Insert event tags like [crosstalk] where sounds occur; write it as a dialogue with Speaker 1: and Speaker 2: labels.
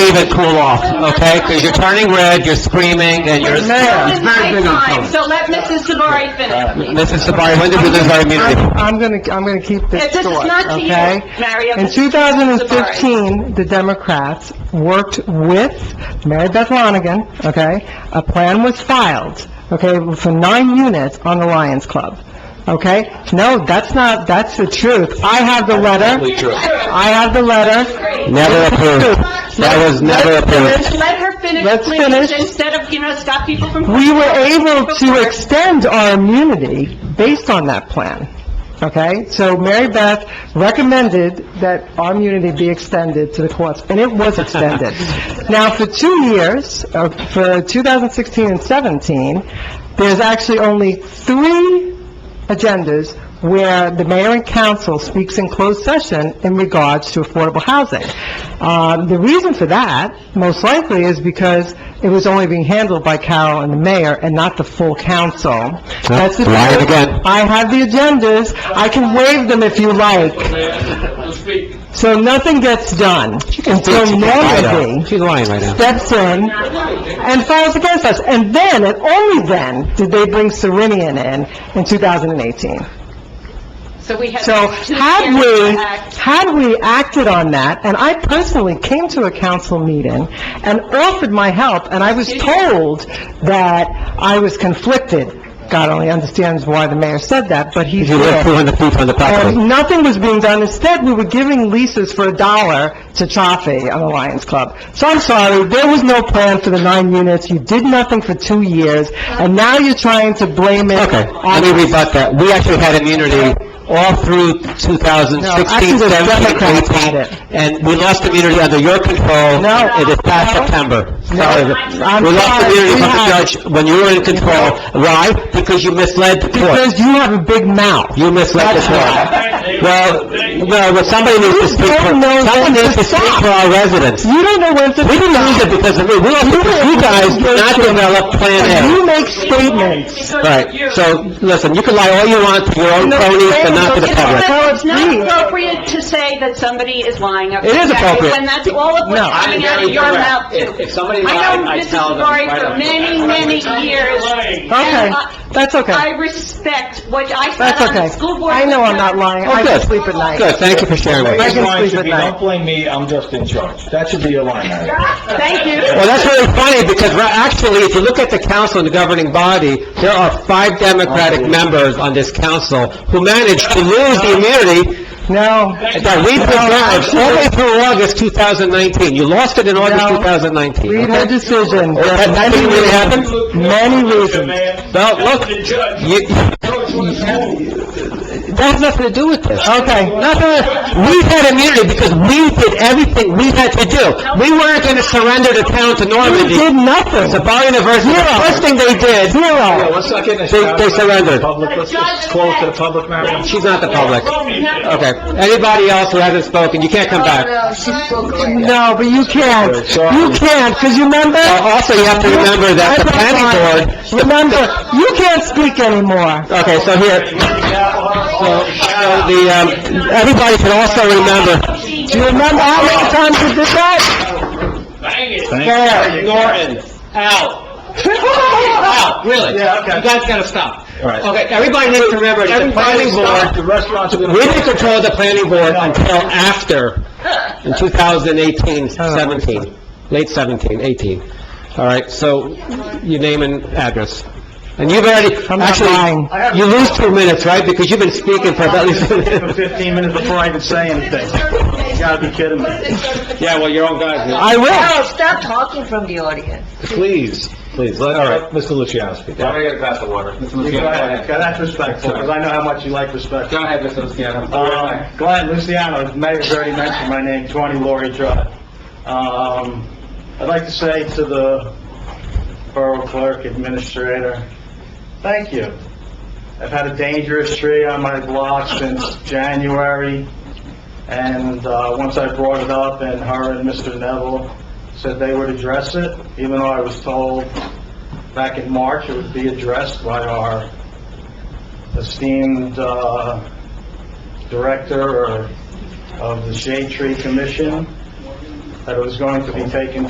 Speaker 1: it cool off, okay? Because you're turning red, you're screaming, and you're...
Speaker 2: This
Speaker 3: Mayor,
Speaker 2: is my
Speaker 1: big on
Speaker 2: time,
Speaker 1: color.
Speaker 2: so let Mrs. Savari finish.
Speaker 1: Mrs. Sabari, when did we lose our immunity?
Speaker 3: I'm I'm gonna, I'm gonna keep this
Speaker 2: Uh, This is
Speaker 3: short,
Speaker 2: not to you,
Speaker 3: okay?
Speaker 2: Mario.
Speaker 3: In
Speaker 2: This is to Mrs. Savari.
Speaker 3: 2015, the Democrats worked with Mary Beth Lonigan, okay? A plan was filed, okay, for nine units on the Lions Club, okay? No, that's not, that's the truth. I have the
Speaker 1: Absolutely
Speaker 3: letter.
Speaker 1: true.
Speaker 3: I have the letter.
Speaker 1: Never approved. That was never approved.
Speaker 2: Let her finish,
Speaker 3: Let's
Speaker 2: please,
Speaker 3: finish.
Speaker 2: instead of, you know, stop people from...
Speaker 3: We were able to extend our immunity based on that plan, okay? So Mary Beth recommended that our immunity be extended to the courts, and it was extended. Now, for two years, uh, for 2016 and 17, there's actually only three agendas where the mayor and council speaks in closed session in regards to affordable housing. Um, The reason for that, most likely, is because it was only being handled by Carol and the mayor and not the full council. That's the
Speaker 1: Lie it
Speaker 3: truth.
Speaker 1: again.
Speaker 3: I have the agendas. I can waive them if you like. So nothing gets done until nobody
Speaker 1: She's lying right now.
Speaker 3: steps in and files against us. And then, and only then, did they bring Serenian in, in 2018.
Speaker 2: So we had... [laughs]
Speaker 3: So
Speaker 2: two
Speaker 3: had
Speaker 2: years to
Speaker 3: we,
Speaker 2: act.
Speaker 3: had we acted on that, and I personally came to a council meeting and offered my help, and I was told that I was conflicted. God only understands why the mayor said that, but he
Speaker 1: If you live
Speaker 3: did.
Speaker 1: 200 feet from the property.
Speaker 3: And nothing was being done. Instead, we were giving leases for a dollar to Chaffee on the Lions Club. So I'm sorry, there was no plan for the nine units. You did nothing for two years, and now you're trying to blame it
Speaker 1: Okay,
Speaker 3: on
Speaker 1: let me rebut that. We actually had immunity all through 2016,
Speaker 3: No, actually, the
Speaker 1: 17,
Speaker 3: Democrats had it.
Speaker 1: 18, and we lost immunity under your control.
Speaker 3: No.
Speaker 1: It is past
Speaker 3: No.
Speaker 1: September.
Speaker 3: No.
Speaker 1: Sorry.
Speaker 3: I'm
Speaker 1: We lost
Speaker 3: sorry.
Speaker 1: immunity
Speaker 3: We
Speaker 1: from the
Speaker 3: had it.
Speaker 1: judge when you were in control. Why? Because you misled the court.
Speaker 3: Because you have a big mouth.
Speaker 1: You misled the court. Well, well, well, somebody needs to speak for,
Speaker 3: don't know
Speaker 1: someone
Speaker 3: when to
Speaker 1: needs to speak
Speaker 3: stop.
Speaker 1: for our residents.
Speaker 3: You don't know when to
Speaker 1: We didn't lose it because of me. We lost it because you guys did not develop Plan A.
Speaker 3: You make statements.
Speaker 1: Right, so, listen, you can lie all you want to your own
Speaker 3: No,
Speaker 1: cronies, but not to the
Speaker 3: no,
Speaker 1: public.
Speaker 3: no,
Speaker 2: But It's not
Speaker 3: Please.
Speaker 2: appropriate to say that somebody is lying.
Speaker 1: It is appropriate.
Speaker 2: When that's all of what's
Speaker 3: No.
Speaker 2: coming out of your mouth, too. If somebody I know Mrs. Savari for many, many years.
Speaker 3: Okay, that's
Speaker 2: I
Speaker 3: okay.
Speaker 2: respect what I
Speaker 3: That's
Speaker 2: said on the
Speaker 3: okay.
Speaker 2: school board.
Speaker 3: I know I'm not lying.
Speaker 1: Oh,
Speaker 3: I
Speaker 1: good.
Speaker 3: can sleep at night.
Speaker 1: Good, thank you for sharing with
Speaker 3: I
Speaker 1: us.
Speaker 3: can
Speaker 4: Line
Speaker 3: sleep
Speaker 4: should
Speaker 3: at
Speaker 4: be,
Speaker 3: night.
Speaker 4: don't blame me, I'm just in charge. That should be your line, Mayor.
Speaker 2: Thank you.
Speaker 1: Well, that's really funny, because ra- actually, if you look at the council and the governing body, there are five Democratic
Speaker 3: Oh.
Speaker 1: members on this council who managed to lose the immunity
Speaker 3: No,
Speaker 1: that we derived all the way through August 2019. You lost it in August
Speaker 3: No.
Speaker 1: 2019,
Speaker 3: read her
Speaker 1: okay?
Speaker 3: decision. There
Speaker 1: That
Speaker 3: are
Speaker 1: that
Speaker 3: many
Speaker 1: didn't really
Speaker 3: reasons.
Speaker 1: happen?
Speaker 3: Many reasons.
Speaker 1: Well, look, you, that has nothing to do with this.
Speaker 3: Okay.
Speaker 1: Nothing, we had immunity because we did everything we had to do. We weren't going to surrender the town to
Speaker 3: You
Speaker 1: Normandy.
Speaker 3: did nothing.
Speaker 1: Sabari University, the first thing they did,
Speaker 3: Zero.
Speaker 4: Let's not get in this.
Speaker 1: They- they surrendered.
Speaker 4: Public, let's let's close to the public, Mayor.
Speaker 1: she's not the public. Okay, anybody else who hasn't spoken, you can't come back.
Speaker 3: No, but you can't. You can't, because you remember...
Speaker 1: Uh, Also, you have to remember that the planning board... Uh,
Speaker 3: Remember, you can't speak anymore.
Speaker 1: Okay, so here, so, so the, um, everybody should also remember,
Speaker 3: Do you remember how many times you did that?
Speaker 1: Fair, Norton, out. Out, really.
Speaker 4: Yeah, okay.
Speaker 1: You guys gotta stop.
Speaker 4: All right.
Speaker 1: Okay, everybody needs to remember, that the planning board
Speaker 4: The restaurants are
Speaker 1: We
Speaker 4: going
Speaker 1: didn't
Speaker 4: to...
Speaker 1: control the planning board until after,
Speaker 3: [laughs]
Speaker 1: in
Speaker 3: Oh,
Speaker 1: 2018, 17, late 17, 18. All right, so you name and address. And you've already,
Speaker 3: I'm not lying.
Speaker 1: actually, you lose two minutes, right? Because you've been speaking for about [laughs] at
Speaker 3: [laughs]
Speaker 1: least...
Speaker 4: For 15 minutes before I even say anything. You gotta be kidding me.
Speaker 1: Yeah, well, your own guys,
Speaker 3: I will.
Speaker 5: Carol, stop talking from the audience.
Speaker 4: Please, please, let, let Mr. Luciano speak. Go
Speaker 6: I'm gonna get a glass of water. Mr. Luciano, go
Speaker 4: ahead,
Speaker 6: ahead.
Speaker 4: that's respectful, because I know how much you like respect.
Speaker 6: Go ahead, Mr. Luciano.
Speaker 4: Uh, Glenn Luciano, the mayor's already mentioned my name, 20 Laurie Drive. Um, I'd like to say to the borough clerk, administrator, thank you. I've had a dangerous tree on my block since January, and uh, once I brought it up, and her and Mr. Neville said they would address it, even though I was told back in March it would be addressed by our esteemed uh, director or of the Shade Tree Commission, that it was going to be taken